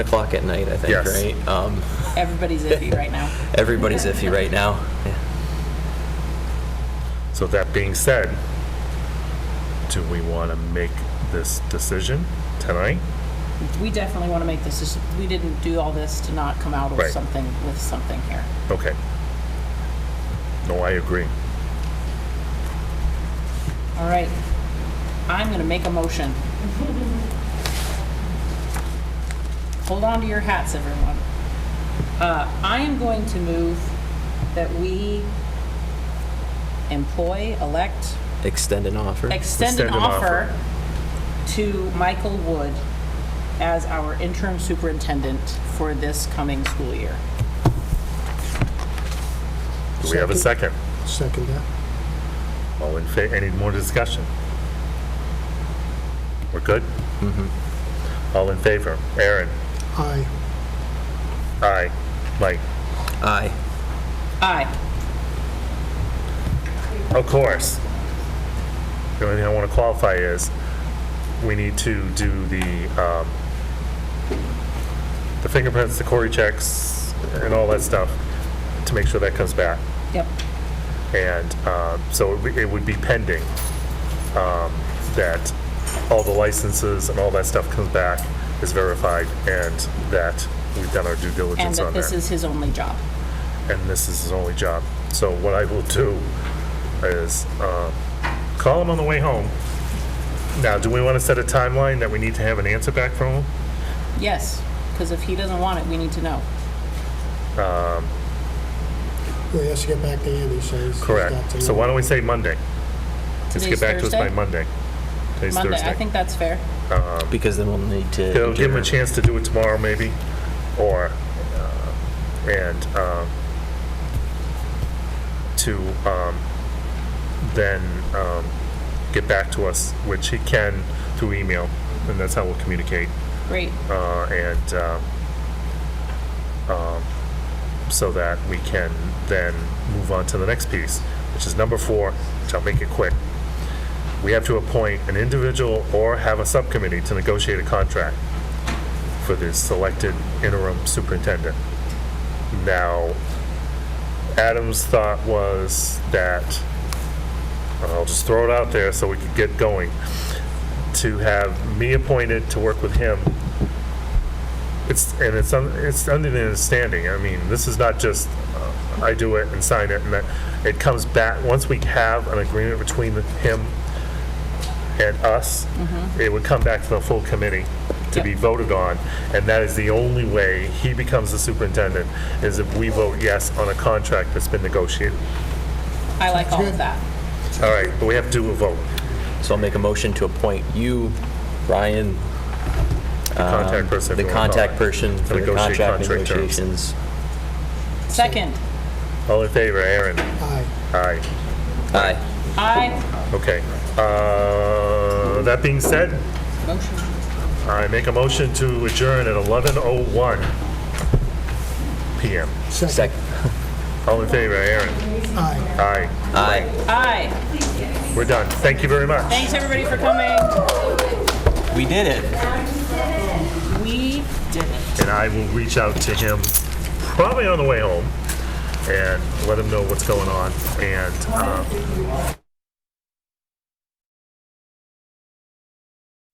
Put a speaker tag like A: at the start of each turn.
A: o'clock at night, I think,
B: Yes.
A: right? Um,
C: Everybody's iffy right now.
A: everybody's iffy right now.
B: So that being said, do we want to make this decision tonight?
C: We definitely want to make this, deci- we didn't do all this to not come out with
B: Right.
C: something, with something here.
B: Okay. No, I agree.
C: All right. I'm going to make a motion. Hold on to your hats, everyone. Uh, I am going to move that we employ, elect,
A: Extend an offer.
C: extend an
B: Extend an offer.
C: offer to Michael Wood as our interim superintendent for this coming school year.
B: Do we have a second?
D: Second that.
B: All in fa, any more discussion? We're good?
D: Mm-hmm.
B: All in favor? Aaron?
D: Aye.
B: Aye. Mike?
A: Aye.
C: Aye.
B: Of course. The only thing I want to qualify is, we need to do the, um, the fingerprints, the Cory checks, and all that stuff, to make sure that comes back.
C: Yep.
B: And um, so it would- it would be pending um, that all the licenses and all that stuff comes back, is verified, and that we've done our due
C: And
B: diligence
C: that
B: on that
C: this is his only job.
B: and this is his only job. So what I will do is uh, call him on the way home. Now, do we want to set a timeline that we need to have an answer back from him?
C: Yes, because if he doesn't want it, we need to know.
D: Well, he has to get back to Andy, so he's. he's got
B: Correct.
D: to-
B: So why don't we say Monday? Just get
C: Today's
B: back to us by
C: Thursday?
B: Monday. Today's
C: Monday, I
B: Thursday.
C: think that's fair.
A: Because then we'll need to.
B: It'll Um, give him a
A: adjourn.
B: chance to do it tomorrow, maybe, or, uh, and um, to um, then um, get back to us, which he can through email, and that's how we'll communicate.
C: Great.
B: uh, and um, um, so that we can then move on to the next piece, which is number four, which I'll make it quick. We have to appoint an individual or have a subcommittee to negotiate a contract for the selected interim superintendent. Now, Adam's thought was that, I'll just throw it out there so we can get going, to have me appointed to work with him. It's, and it's, un- it's under the understanding, I mean, this is not just, uh, I do it and sign it, and that, it comes back, once we have an agreement between the- him and us,
A: Mm-hmm.
B: it would come back to the full committee to be
C: Yep.
B: voted on, and that is the only way he becomes the superintendent, is if we vote yes on a contract that's been negotiated.
C: I like all of
D: good.
C: that.
B: All right, but we have to do a vote,
A: So I'll make a motion to appoint you, Ryan,
B: the contact person. if
A: Um, the
B: you wanna call
A: contact
B: it,
A: person
B: to
A: for the
B: negotiate
A: contract
B: contract terms.
A: negotiations.
C: Second,
B: All in favor, Aaron?
D: Aye.
B: Aye.
A: Aye.
C: I,
B: Okay. Uh, That being said,
C: motion.
B: I make a motion to adjourn at 11:01 PM.
D: Second.
A: Second.
B: All in favor, Aaron?
D: Aye.
B: Aye.
A: Aye.
C: I.
B: We're done. Thank you very much.
C: Thanks, everybody, for coming.
A: We did it.
C: We did it.
B: and I will reach out to him probably on the way home and let him know what's going on. And um,